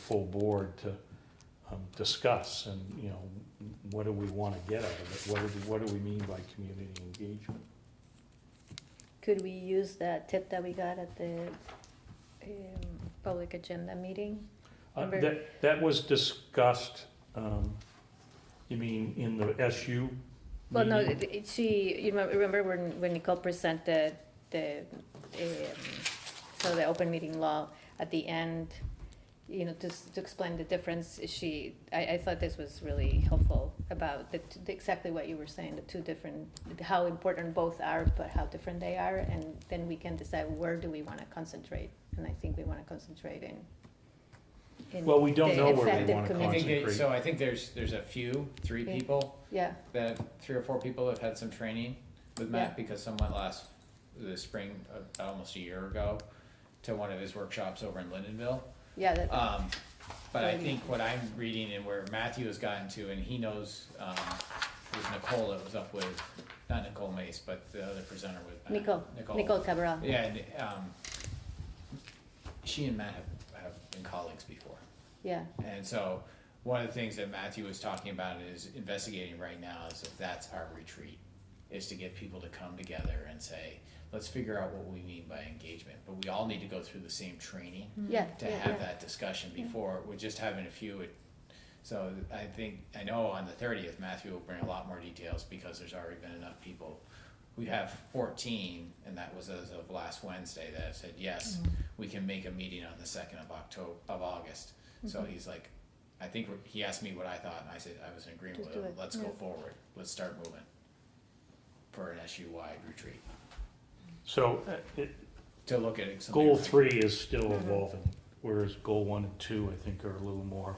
full board to um, discuss and, you know, what do we want to get out of it? What do, what do we mean by community engagement? Could we use that tip that we got at the um, public agenda meeting? Uh, Remember- That, that was discussed, um, you mean in the SU? Well, no, meeting? it- it- she, you remem- remember when, when Nicole presented the, um, so the open meeting law at the end, you know, just to explain the difference, she, I, I thought this was really helpful about the, t- the- exactly what you were saying, the two different, how important both are, but how different they are, and then we can decide where do we wanna concentrate, and I think we wanna concentrate in. in Well, we don't the know where we affected wanna community. I think there- Concentrate. So I think there's, there's a few, three Yeah. people, Yeah, that, three or four people have had some training with Yeah. Matt because someone last, the spring, of- almost a year ago, to one of his workshops over in Lindenville. yeah, that, Um, but I Right. think what I'm reading and where Matthew has gotten to, and he knows, um, it was Nicole that was up with, not Nicole Mace, but the other presenter with Matt. Nicole, Nicole Cabral. Yeah, and, um, she and Matt have, have been colleagues before. Yeah, And so, one of the things that Matthew was talking about is investigating right now is if that's our retreat, is to get people to come together and say, let's figure out what we mean by engagement. But we all need to go through the same training yeah, to yeah, have yeah. that discussion before, we're just having a few. it- So I think, I know on the thirtieth, Matthew will bring a lot more details because there's already been enough people. We have fourteen, and that was as of last Wednesday, that have said, yes, Mm-hmm. we can make a meeting on the second of October, of August. So Mm-hmm. he's like, I think, we're- he asked me what I thought, and I said, I was in agreement Just with do him, it, let's go yeah. forward, let's start moving. For an SU-wide retreat, So uh, it- to look at something. goal three is still Mm-hmm. evolving, whereas goal one and two, I think, are a little more,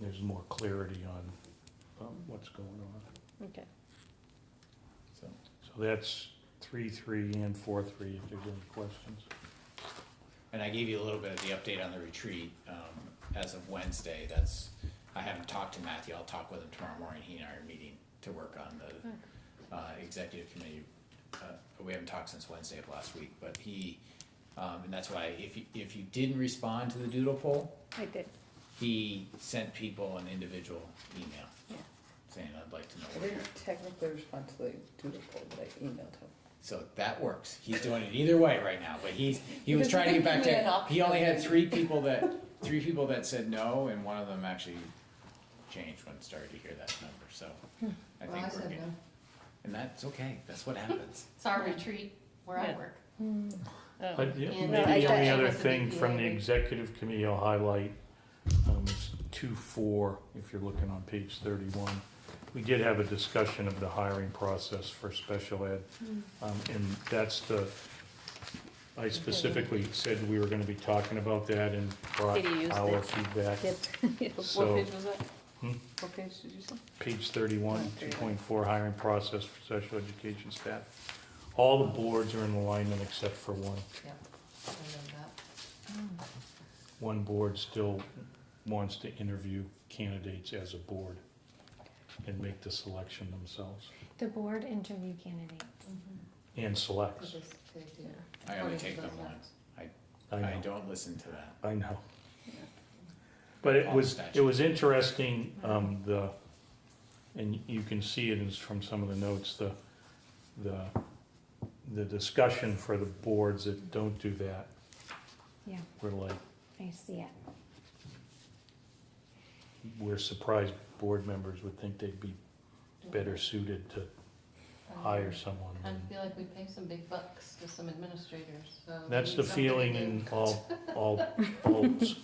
there's more clarity on um, what's going on. Okay, So, So that's three, three, and four, three, if there's any questions. And I gave you a little bit of the update on the retreat, um, as of Wednesday, that's, I haven't talked to Matthew, I'll talk with him tomorrow morning, he and I are meeting to work on the, uh, executive committee. Uh, We haven't talked since Wednesday of last week, but he, um, and that's why, if you, if you didn't respond to the doodle poll, I did, he sent people an individual email yeah. saying, I'd like to know I where you're didn't technically respond to the doodle poll that I emailed him. So that works. He's doing it either way right now, but he's he was Because trying to get back he had an to. option. He only had three people that three people that said no, and one of them actually changed when it started to hear that number. So I Well, I think we're said good, no. and that's okay. That's what happens. It's our retreat where I Yeah. work. Oh. But yeah, And I- maybe the I- only I other was a big thing from the DA. executive committee I'll highlight, um, is two, four, if you're looking on page thirty-one. We did have a discussion of the hiring process for special ed, Hmm. um, and that's the, I specifically said we were gonna be talking about that and brought Did you use our that? feedback. Yep. So- What page was that? Hmm? What page did you say? Page thirty-one, two point four, hiring process for special education staff. All the boards are in alignment except for one. I know that. One board still wants to interview candidates as a board and make the selection themselves The board interview candidates. Mm-hmm. and selects. I only take them once. I I know, don't listen to that. I know. But it was, it was interesting, um, the, and you can see it is from some of the notes, the, the, the discussion for the boards that don't do that Yeah, were like, I see it. we're surprised board members would think they'd be better suited to hire someone. I feel like we pay some big bucks to some administrators, so. we That's need the something to feeling do. in all, all, all s-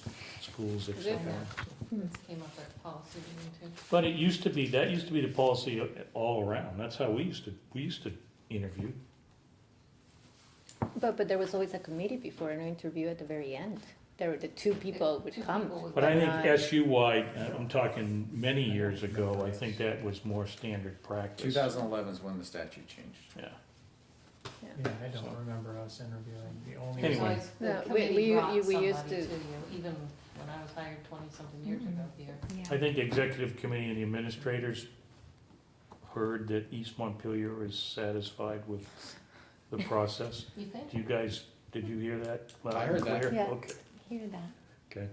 schools except one. This came up at policy meeting too. But it used to be, that used to be the policy all around. That's how we used to, we used to interview. But, but there was always a committee before an interview at the very end. There were the two people would Two come. people would But I think not- SU-wide, uh, I'm talking many years ago, I think that was more standard practice. 2011 is when the statute changed. Yeah. Yeah, I So- don't remember us interviewing. The only There's Anyway. always- No, The we- we- committee brought you- we somebody used to Mm-hmm. to- you, even when I was hired twenty-something years ago here. Yeah. I think the executive committee and the administrators heard that East Montpelier is satisfied with the process. You think? Do you guys, did you hear that? loud I heard and that. clear? Yeah. Okay. Hear that. Okay.